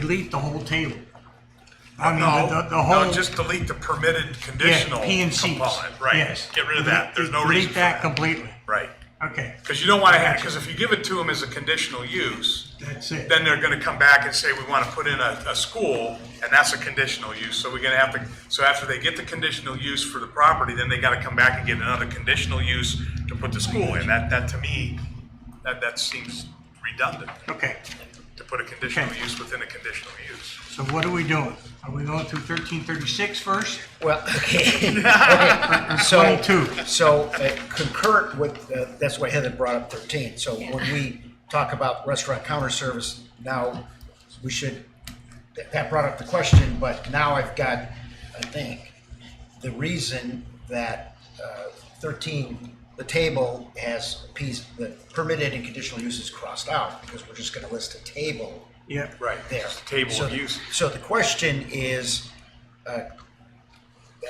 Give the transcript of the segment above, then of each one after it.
delete the whole table. I mean, the, No, the- the whole. no, just delete the permitted conditional Yeah, P and Cs. component, right? Yes. Get rid of that, there's no Delete- reason for Delete that that, completely. right? Okay, Because you don't want to have, because if you give it to them as a conditional use, that's it. then they're gonna come back and say, we wanna put in a, a school, and that's a conditional use, so we're gonna have to, so after they get the conditional use for the property, then they gotta come back and get another conditional use to put the school in, that, that to me, that, that seems redundant, Okay, to put a conditional Okay. use within a conditional use. so what are we doing? Are we going through thirteen thirty-six first? Well, okay. Okay, so, 22. so uh, concurrent with, uh, that's why Heather brought up 13. So when we talk about restaurant counter service, now we should, that- that brought up the question, but now I've got, I think, the reason that uh, 13, the table has piece, the permitted and conditional uses crossed out because we're just going to list a table Yeah. Right, there. it's a Table So- of uses. So the question is,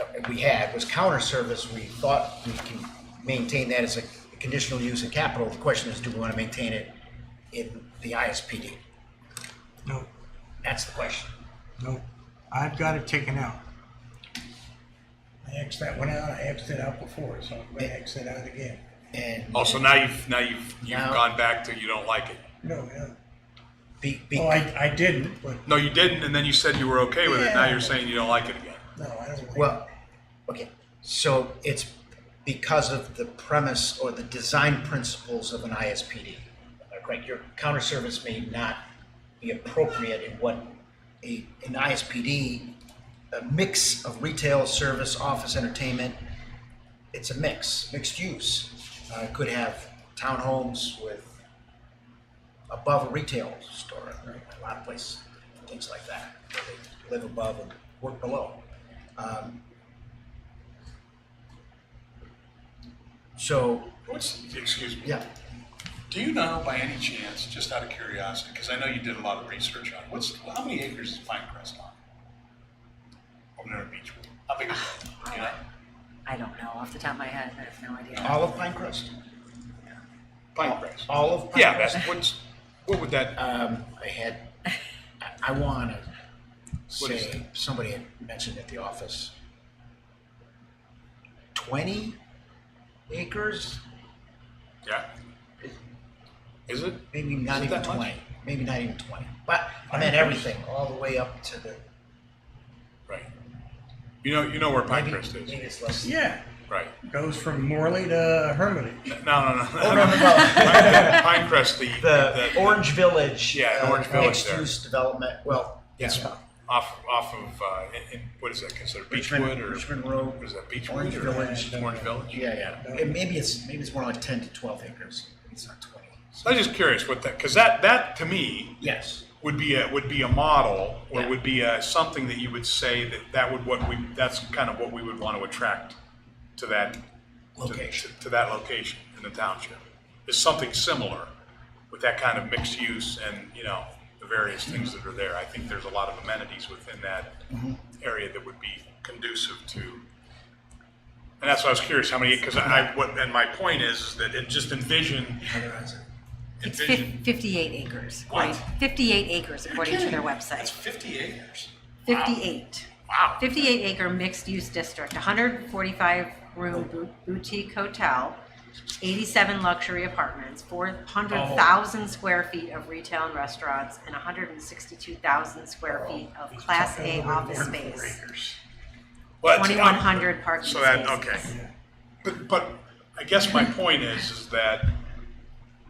uh, that we had was counter service, we thought we can maintain that as a conditional use in capital. The question is, do we want to maintain it in the ISPD? No, That's the question. no, I've got it taken out. I Xed that one out, I Xed it out before, so I'm gonna X it out again. And Also, Oh, now you've, now you've, you've Now- gone back to you don't like it. No, no, be, be, oh, I, I didn't, but No, you didn't, and then you said you were okay with it, now Yeah. you're saying you don't like it again. no, I don't. like- well, okay, so it's because of the premise or the design principles of an ISPD. Like, Right, your counter service may not be appropriate in what a, an ISPD, a mix of retail, service, office, entertainment, it's a mix, mixed use. Uh, could have townhomes with above a retail store, a lot of places, things like that. where They live above and work below. Um, so, What's, excuse me, yeah, do you know by any chance, just out of curiosity, because I know you did a lot of research on it, what's, how many acres is Pinecrest on? Over there in Beechwood, how big is it? You know? I don't know off the top of my head. I have no idea. olive pine crust, Oh. Pinecrest. olive pine Yeah, crust. that's, what's, what would that, Um, I had, I, I wanna What is say, somebody had mentioned at the office, twenty acres, yeah? Is it? maybe not Is it even that much? twenty, maybe not even twenty, but I meant everything, all the way up to the, Right. You know, you know where maybe, Pinecrest maybe is, it's less. Yeah, right? goes from Morley to Hermitage. No, no, no, Oh, no, no, no, no. no. Pinecrest, the. The Orange Village. Yeah, the uh, Orange Village there. Mixed-use development, well, It's it's not. off, off of, uh, in, in- what is that considered, Richmond- Beechwood or? Richmond Road. What is that, Beechwood Orange or? Village. Orange Village? Yeah, yeah. And maybe it's, maybe it's more like ten to twelve acres. It's not twenty. So I'm just curious what that, because that, that to me Yes. would be a, would be a model or Yeah. would be a, something that you would say that that would what we, that's kind of what we would want to attract to that. to- Location. To that location in the township. Is something similar with that kind of mixed use and, you know, the various things that are there. I think there's a lot of amenities within that area that would be conducive to And that's why I was curious how many, because I, what, and my point is, is that it just envision, Otherwise, It's envision. fif- 58 acres. What? according- 58 acres according to their That's website. 50 acres. 58. Wow. 58 acre mixed use district, 145 room bo- boutique hotel, 87 luxury apartments, Oh. 400,000 square feet of retail and restaurants, and 162,000 square Oh. feet of class A office space. Well, that's- 2,100 parking So that, spaces. okay. But, but I guess my point is, is that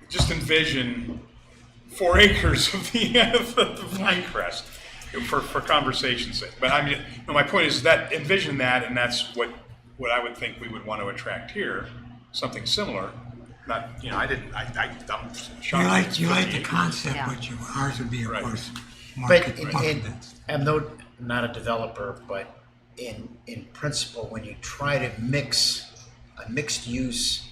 just envision four acres of the, of the vine crest for, for conversation's sake. But I mean, no, my point is that envision that, and that's what, what I would think we would want to attract here, something similar. Not, you know, I didn't, I, I, I'm shocked. You like, you like the concept, Yeah. but you, ours would be, of Right. course, But market in, market. in, I'm no, I'm not a developer, but in, in principle, when you try to mix a mixed use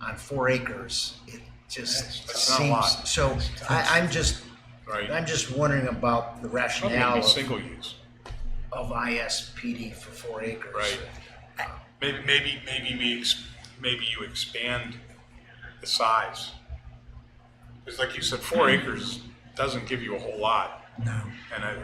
on four acres, it just That's not a lot. seems, so I, I'm just, Right. I'm just wondering about the Probably gonna rationale be of- single use. of ISPD for four acres. Right. Maybe, maybe, maybe we, ex- maybe you expand the size. Because like you said, four acres doesn't give you a whole lot. No. And I,